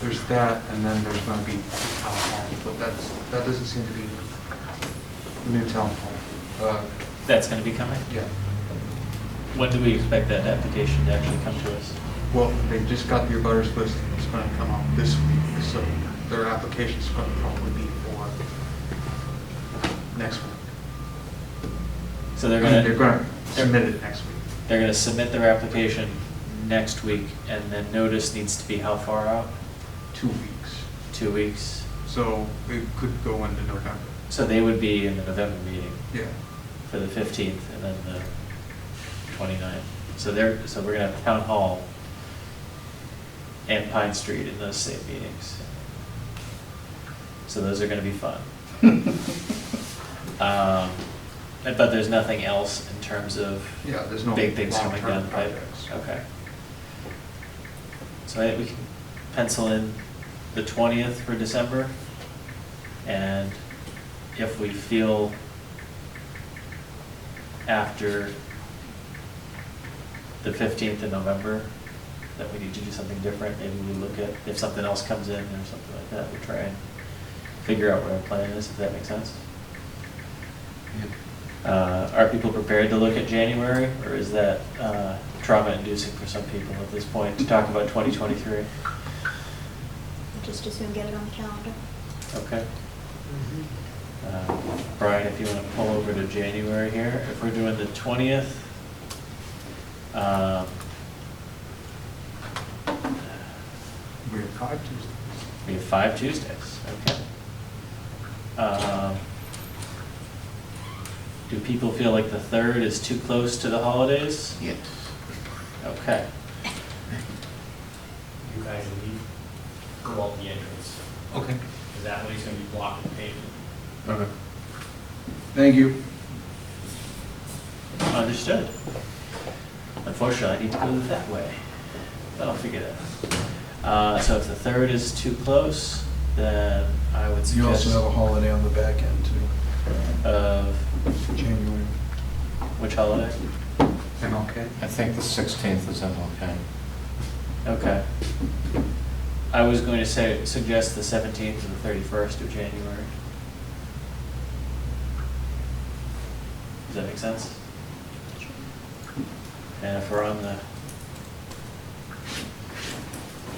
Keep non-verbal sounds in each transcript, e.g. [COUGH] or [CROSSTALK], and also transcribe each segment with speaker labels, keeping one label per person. Speaker 1: There's that, and then there's going to be town hall, but that's, that doesn't seem to be the new town hall. Uh,
Speaker 2: That's going to be coming?
Speaker 1: Yeah,
Speaker 2: When do we expect that application to actually come to us?
Speaker 1: well, they just got your butters list, it's going to come out this week, so their application's going to probably be for next week.
Speaker 2: So they're
Speaker 1: They're going to
Speaker 2: going to,
Speaker 1: submit it next week.
Speaker 2: they're going to submit their application next week, and then notice needs to be how far out?
Speaker 1: two weeks.
Speaker 2: Two weeks?
Speaker 1: So it could go into November.
Speaker 2: So they would be in the November meeting
Speaker 1: Yeah.
Speaker 2: for the 15th and then the 29th. So they're, so we're going to have Town Hall and Pine Street in those same meetings. So those are going to
Speaker 1: [LAUGHS]
Speaker 2: be fun. Um, But there's nothing else in terms of
Speaker 1: Yeah, there's no.
Speaker 2: big things coming
Speaker 1: long-term
Speaker 2: down the pipe?
Speaker 1: projects.
Speaker 2: Okay. So I think we can pencil in the twentieth for December, and if we feel after the fifteenth of November that we need to do something different, maybe we look at, if something else comes in or something like that, we try and figure out what our plan is, if that makes sense. Uh, Are people prepared to look at January, or is that uh, trauma-inducing for some people at this point to talk about 2023?
Speaker 3: Just as soon get it on the calendar.
Speaker 2: Okay. Uh, Brian, if you want to pull over to January here, if we're doing the 20th, um,
Speaker 1: We have five Tuesdays.
Speaker 2: we have five Tuesdays, okay. Um, Do people feel like the 3rd is too close to the holidays?
Speaker 1: Yes.
Speaker 2: Okay.
Speaker 4: you guys leave, go out the entrance,
Speaker 1: Okay.
Speaker 4: because that way's gonna be blocked and paved.
Speaker 2: Okay.
Speaker 1: Thank you.
Speaker 2: Understood. Unfortunately, I need to go that way, but I'll figure that out. Uh, So if the third is too close, then I would
Speaker 5: You also have a
Speaker 2: suggest
Speaker 5: holiday on the back end too,
Speaker 2: of,
Speaker 5: January.
Speaker 2: which holiday?
Speaker 1: I'm okay.
Speaker 6: I think the 16th is MLK.
Speaker 2: Okay. I was going to say, suggest the 17th or the 31st of January. Does that make sense? And if we're on the,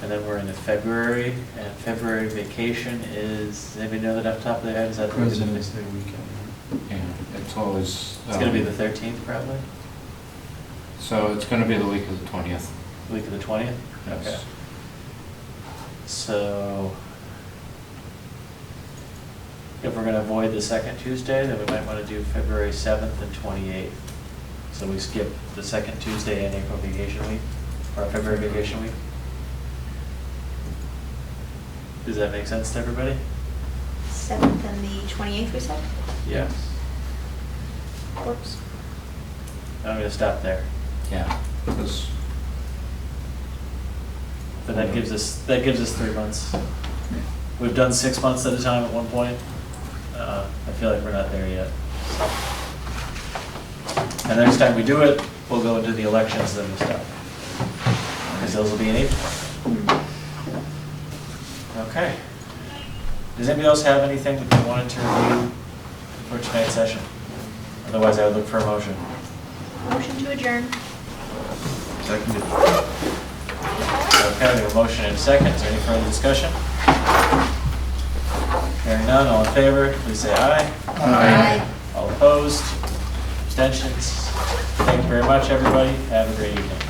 Speaker 2: and then we're into February, and February vacation is, does anybody know that off the top of their head? Is that?
Speaker 5: President's Day weekend.
Speaker 6: Yeah, it's always.
Speaker 2: It's gonna be
Speaker 6: um,
Speaker 2: the 13th probably,
Speaker 6: So it's gonna be the week of the 20th.
Speaker 2: the week of the 20th?
Speaker 6: Yes.
Speaker 2: Okay. So if we're gonna avoid the second Tuesday, then we might wanna do February seventh and twenty-eighth. So we skip the second Tuesday in April vacation week, or February vacation week. Does that make sense to everybody?
Speaker 3: Seventh and the twenty-eighth, we said?
Speaker 2: Yes.
Speaker 3: Works.
Speaker 2: I'm gonna stop there.
Speaker 6: Yeah, because
Speaker 2: But that gives us, that gives us three months. We've done six months at a time at one point. Uh, I feel like we're not there yet. And next time we do it, we'll go into the elections and stuff. Because those will be in April. Okay. Does anybody else have anything that they wanted to review for tonight's session? Otherwise, I would look for a motion.
Speaker 3: Motion to adjourn.
Speaker 5: Seconded.
Speaker 2: Okay, we have a motion and a second. Is there any further discussion? Hearing none, all in favor, please say aye.
Speaker 3: Aye.
Speaker 2: All opposed, abstentions. Thank you very much, everybody. Have a great evening.